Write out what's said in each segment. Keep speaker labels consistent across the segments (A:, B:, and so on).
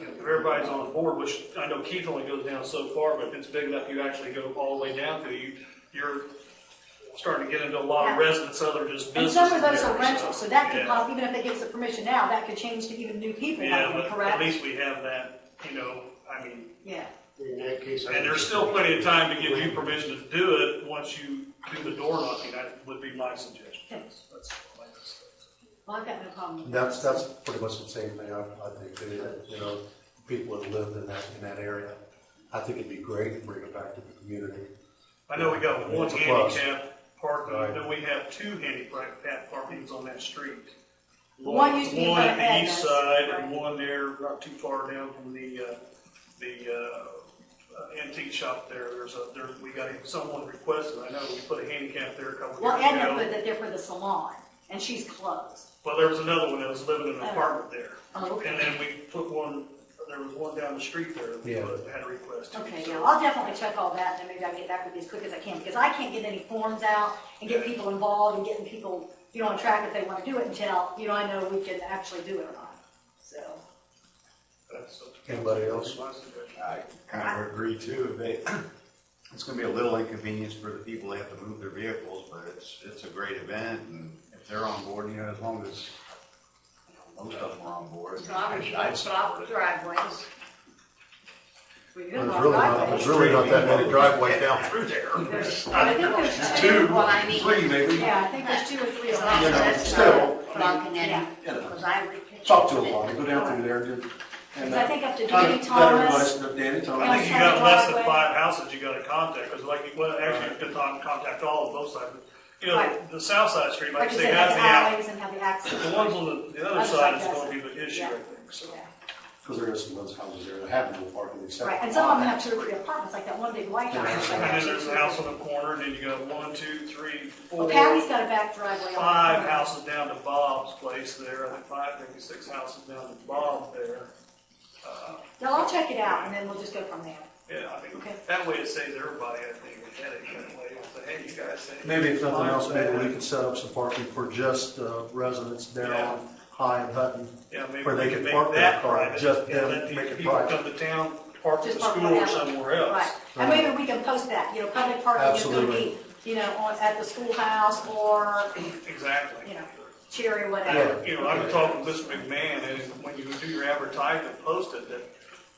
A: if everybody's on board, which I know Keith only goes down so far, but if it's big enough, you actually go all the way down to, you, you're starting to get into a lot of
B: Yeah.
A: residents, other just
B: And
A: businesses.
B: some of those are
A: there,
B: rentals, so that could
A: yeah.
B: cause, even if they give us the permission now, that could change to even new people
A: Yeah,
B: coming,
A: but at
B: correct?
A: least we have that, you know, I mean,
B: Yeah,
C: In that case. I
A: and
C: would-
A: there's still plenty of time to give you permission to do it, once you do the door knocking, that would be my suggestion.
B: Yes.
A: That's my suggestion.
B: well, I've got no problem. with
C: That's,
B: that.
C: that's pretty much the same thing I, I think, that, you know, people that lived in that, in that area. I think it'd be great to bring it back to the community.
A: I know we got one
C: It's a plus.
A: handicap parking,
C: Right.
A: then we have two handicap parkings on that street.
B: One used to be in front of
A: One at the east
B: Edna's,
A: side and
B: right.
A: one there not too far down from the, uh, the, uh, antique shop there. There's a, there, we got, someone requested, I know, we put a handicap there a couple
B: Well,
A: of years
B: Edna put
A: ago.
B: that there for the salon, and she's closed.
A: Well, there was another one that was living in an
B: Oh.
A: apartment there.
B: Oh, okay.
A: And then we put one, there was one down the street there that we
C: Yeah.
A: put- had a request. to.
B: Okay,
A: So-
B: yeah, I'll definitely check all that, and then maybe I'll get back with you as quick as I can, because I can't get any forms out and get people involved and getting people, you know, on track if they want to do it until, you know, I know we can actually do it or not, so.
A: that's up to
C: Anybody
A: council.
C: else?
A: My suggestion.
D: I kind of agree too, they, it's gonna be a little inconvenience for the people that have to move their vehicles, but it's, it's a great event, and if they're on board, you know, as long as most of them are on board.
B: Drivers,
D: I'd
B: drop
D: support it.
B: driveways. We do
C: There's
B: block
C: really not,
B: driveways.
C: there's really not that many driveways down through there.
B: There's- I think there's
D: Two,
B: two, well, I mean,
D: three maybe.
B: yeah, I think there's two or three.
E: As
B: on
E: long
B: that.
E: as
D: that's
E: that's
D: still-
E: not blocking
B: Yeah.
E: any, because I read.
D: Talk to them, Lonnie, go down through there and. and, uh,
B: I think up to
D: try
B: Danny
D: to let everybody
B: Thomas.
D: know Danny Thomas.
A: I think you
B: Outside
A: got less than
B: driveway.
A: five houses you gotta contact, because like, you- well, actually, you could con- contact all of both sides. You know,
B: Right.
A: the south side street, like
B: Like
A: you
B: you
A: say,
B: said,
A: has
B: have
A: the
B: the
A: out,
B: alleyways and have the access.
A: the ones on the, the other
B: Other
A: side is
B: side
A: gonna be the issue, I think, so.
B: Yeah.
C: Because there are some of those houses there that have no parking except.
B: Right, and some of them have two or three apartments, like that one big white house.
A: And then there's a house on the corner, and then you got one, two, three,
B: Well,
A: four,
B: Patty's got a back driveway. on the
A: five
B: corner.
A: houses down to Bob's place there, I think five, maybe six houses down to Bob there. Uh,
B: No, I'll check it out and then we'll just go from there.
A: Yeah, I think,
B: Okay.
A: that way it saves everybody, I think, a headache that way, say, hey, you guys. say-
C: Maybe if nothing else, maybe we
A: Yeah.
C: could set up some parking for just uh, residents down High and Hutton.
A: Yeah, maybe
C: Where they
A: we
C: can
A: could make
C: park their
A: that
C: car,
A: private,
C: just
A: and
C: them
A: let the
C: make it
A: people
C: private.
A: come to town, park at
B: Just
A: the
B: park
A: school
B: whatever.
A: or somewhere
B: Right,
A: else.
B: and maybe we can post that, you know, public parking is gonna be,
C: Absolutely.
B: you know, on, at the schoolhouse or
A: Exactly.
B: You know. Cherry,
A: I-
B: whatever.
A: You know, I've been talking with Mr. McMahon, and when you do your advertising, post it, that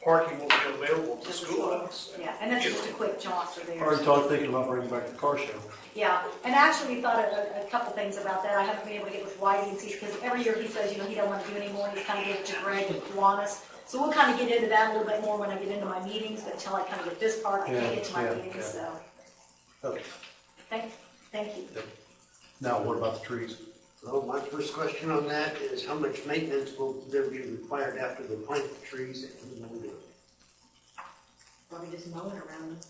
A: parking will be available at the
B: Just a
A: schoolhouse.
B: little- Yeah, and that's just a quick jaunt through there.
C: Already talked, thinking about bringing back the car show.
B: Yeah, and actually, we thought of a, a couple things about that. I haven't been able to get with Whitey and see, because every year he says, you know, he don't want to do anymore, and he's kind of giving it to Greg and Duanis. So we'll kind of get into that a little bit more when I get into my meetings, but until I kind of get this part, I
C: Yeah,
B: can't get to my
C: yeah,
B: meetings,
C: yeah.
B: so,
C: Okay.
B: thank, thank you.
C: Now, what about the trees?
F: Well, my first question on that is how much maintenance will there be required after they plant the trees that we will do?
B: Let me just mow it around.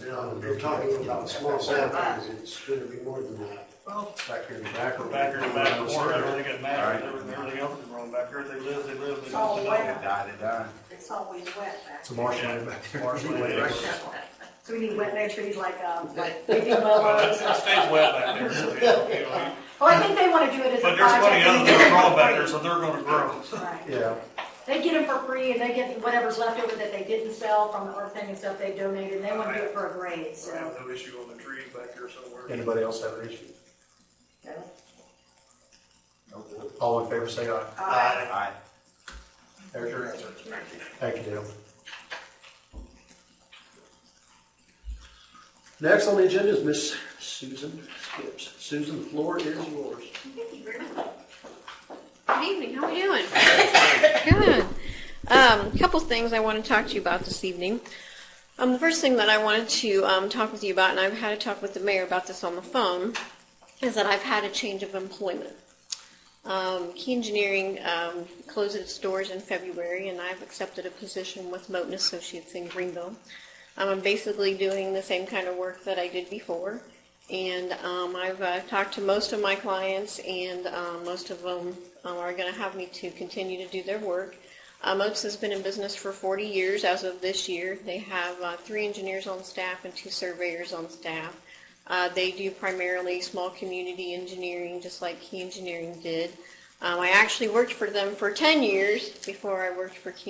F: Now, if you're talking about small saplings, it's gonna be more than that.
C: Back here in the back or?
A: Back here in the back
C: Uh,
A: corner, everything got matted,
D: Alright.
A: everything everything else is wrong back here, if they live, they live.
B: It's all
D: They
B: wet.
D: died, they died.
B: It's always wet back.
C: It's a marshmallow back there.
A: Marshmallow.
B: So we need wet bay trees like, um, like baby mowers.
A: It stays wet back there, so, you know, you know,
B: Well, Oh, I think they want to do it as a
A: but there's
B: project.
A: plenty of
B: and
A: them
B: they
A: that are
B: get them
A: growing
B: for
A: back there,
B: free.
A: so they're gonna grow.
B: Right.
C: Yeah,
B: They get them for free and they get whatever's left over that they didn't sell from the earth thing and stuff they donated, and they want to do it for a grade,
A: I
B: so.
A: have no issue on the trees back here somewhere.
C: anybody else have an issue?
B: okay.
C: All in favor, say aye.
B: Uh,
D: Aye.
C: There's your answer. Thank you, Dale. Next on the agenda is Miss Susan Skips. Susan, the floor is yours.
G: Good evening, how are you doing? Good. Um, a couple things I want to talk to you about this evening. Um, the first thing that I wanted to um, talk with you about, and I've had a talk with the mayor about this on the phone, is that I've had a change of employment. Um, Key Engineering um, closed its doors in February, and I've accepted a position with Moten Associates in Greenville. Um, I'm basically doing the same kind of work that I did before, and um, I've uh, talked to most of my clients, and um, most of them um, are going to have me to continue to do their work. Uh, Motes has been in business for 40 years as of this year. They have uh, three engineers on staff and two surveyors on staff. Uh, they do primarily small community engineering, just like Key Engineering did. Um, I actually worked for them for 10 years before I worked for Key